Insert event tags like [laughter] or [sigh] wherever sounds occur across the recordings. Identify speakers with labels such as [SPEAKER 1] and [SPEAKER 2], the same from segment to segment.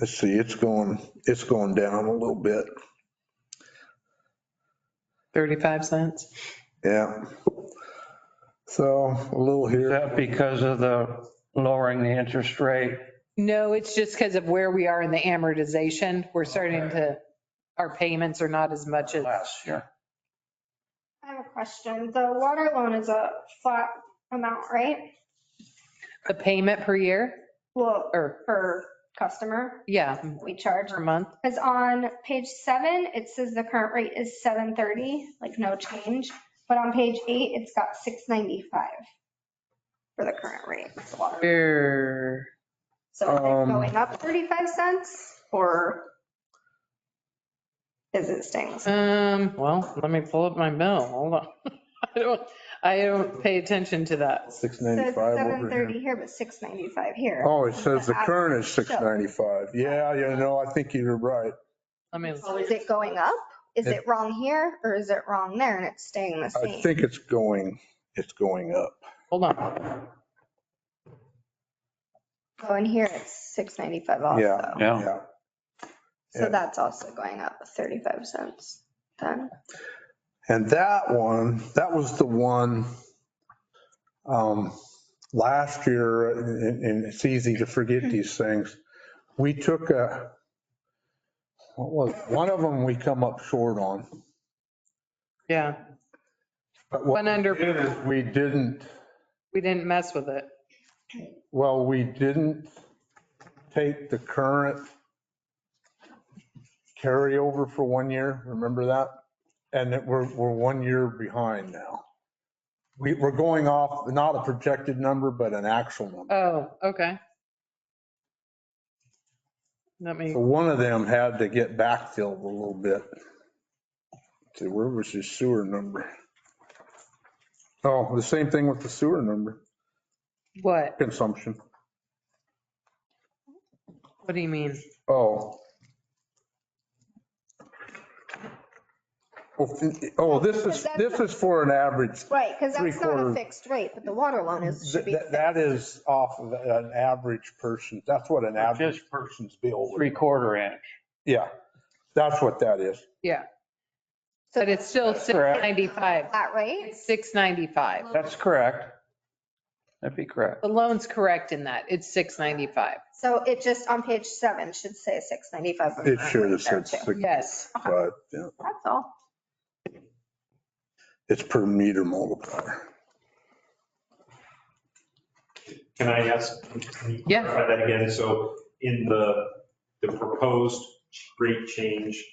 [SPEAKER 1] Let's see, it's going, it's going down a little bit.
[SPEAKER 2] 35 cents.
[SPEAKER 1] Yeah. So a little
[SPEAKER 3] Is
[SPEAKER 1] here.
[SPEAKER 3] that because of the lowering the interest rate?
[SPEAKER 2] No, it's just because of where we are in the amortization. We're starting to, our payments are not as much as,
[SPEAKER 3] Last year.
[SPEAKER 4] I have a question. The water loan is a flat amount, right?
[SPEAKER 2] the payment per year
[SPEAKER 4] Well,
[SPEAKER 2] or,
[SPEAKER 4] per customer,
[SPEAKER 2] yeah,
[SPEAKER 4] we charge.
[SPEAKER 2] per month.
[SPEAKER 4] Because on page seven, it says the current rate is 730, like no change. But on page eight, it's got 695 for the current rate. for the water.
[SPEAKER 2] Err,
[SPEAKER 4] So is
[SPEAKER 3] Um,
[SPEAKER 4] it going up 35 cents or is it staying? the same?
[SPEAKER 2] Um, well, let me pull up my bill. Hold on. [laughs] I don't, I don't pay attention to that.
[SPEAKER 4] So it's
[SPEAKER 1] 695 over here.
[SPEAKER 4] 730 here, but 695 here.
[SPEAKER 1] Oh, it says the current is 695. Yeah, you know, I think you're right.
[SPEAKER 2] Let me,
[SPEAKER 4] So is it going up? Is it wrong here or is it wrong there and it's staying the
[SPEAKER 1] I
[SPEAKER 4] same?
[SPEAKER 1] think it's going, it's going up.
[SPEAKER 2] hold on.
[SPEAKER 4] So in Oh, here, it's 695 also.
[SPEAKER 1] Yeah.
[SPEAKER 3] Yeah.
[SPEAKER 1] Yeah.
[SPEAKER 4] So that's also going up 35 cents then.
[SPEAKER 1] And that one, that was the one, um, last year, and, and it's easy to forget these things. We took a, what was, one of them we come up short on.
[SPEAKER 2] Yeah,
[SPEAKER 1] but what
[SPEAKER 2] one
[SPEAKER 1] we did
[SPEAKER 2] under,
[SPEAKER 1] is We didn't,
[SPEAKER 2] we didn't mess with it.
[SPEAKER 1] well, we didn't take the current carryover for one year, remember that? And that we're, we're one year behind now. We, we're going off, not a projected number, but an actual number.
[SPEAKER 2] Oh, okay. Let me,
[SPEAKER 1] So one of them had to get backfilled a little bit. See, where was his sewer number? Oh, the same thing with the sewer number,
[SPEAKER 2] what?
[SPEAKER 1] consumption.
[SPEAKER 2] What do you mean?
[SPEAKER 1] Oh. Oh, oh, this is, this is for an average.
[SPEAKER 4] Right, because that's not
[SPEAKER 1] Three-quarter.
[SPEAKER 4] a fixed rate, but the water loan is, should be.
[SPEAKER 1] That that is off of an average person. That's what an average
[SPEAKER 3] Just
[SPEAKER 1] person's bill would.
[SPEAKER 3] Three quarter inch.
[SPEAKER 1] Yeah, that's what that is.
[SPEAKER 4] So
[SPEAKER 2] But it's still
[SPEAKER 3] correct.
[SPEAKER 2] 695.
[SPEAKER 4] Flat rate?
[SPEAKER 2] It's 695.
[SPEAKER 3] That's correct. That'd be correct.
[SPEAKER 2] The loan's correct in that. It's 695.
[SPEAKER 4] So it just on page seven should say 695. but
[SPEAKER 1] It sure is,
[SPEAKER 4] there
[SPEAKER 1] it's,
[SPEAKER 4] too.
[SPEAKER 2] Yes.
[SPEAKER 1] but yeah,
[SPEAKER 4] That's all.
[SPEAKER 1] it's per meter multiplier.
[SPEAKER 5] Can I ask? can you
[SPEAKER 2] Yeah.
[SPEAKER 5] clarify That again, so in the, the proposed rate change,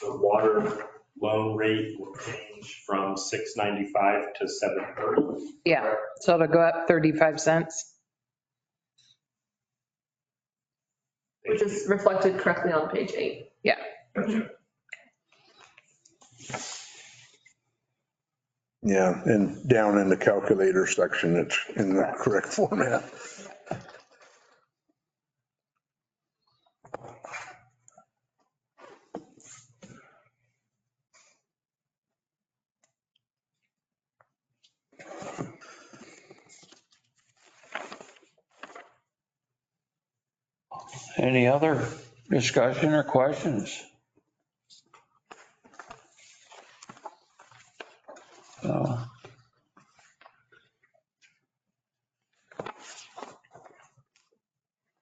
[SPEAKER 5] the water loan rate will change from 695 to 730.
[SPEAKER 2] Yeah. So it'll go up 35 cents.
[SPEAKER 6] which is reflected correctly on page eight.
[SPEAKER 1] Yeah, and down in the calculator section, it's in the correct format.
[SPEAKER 3] Any other discussion or questions? So.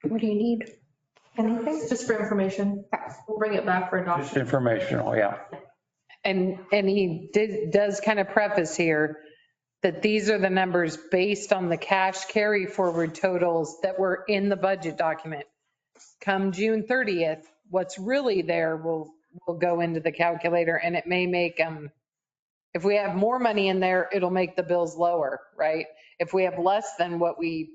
[SPEAKER 4] What do you need? Anything?
[SPEAKER 6] It's just for information. We'll bring it back for
[SPEAKER 3] Just
[SPEAKER 6] adoption.
[SPEAKER 3] informational, yeah.
[SPEAKER 2] And, and he did, does kind of preface here that these are the numbers based on the cash carry forward totals that were in the budget document. Come June 30th, what's really there will, will go into the calculator and it may make, um, if we have more money in there, it'll make the bills lower, right? If we have less than what we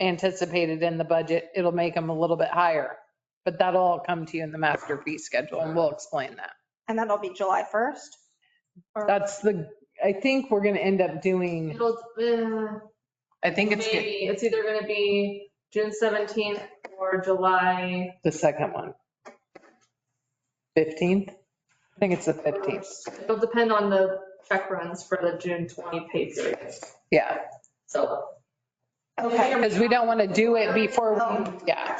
[SPEAKER 2] anticipated in the budget, it'll make them a little bit higher. But that'll all come to you in the master fee schedule and we'll explain that.
[SPEAKER 4] And that'll be July 1st? Or-
[SPEAKER 2] That's the, I think we're gonna end up doing,
[SPEAKER 6] It'll, uh,
[SPEAKER 2] I think it's
[SPEAKER 6] maybe, it's either gonna be June seventeenth or July
[SPEAKER 2] the second one. 15th? I think it's the 15th.
[SPEAKER 6] fifteenth. It'll depend on the check runs for the June twenty pay period,
[SPEAKER 2] Yeah,
[SPEAKER 6] so.
[SPEAKER 4] Okay.
[SPEAKER 2] because we don't want to do it before, we- yeah.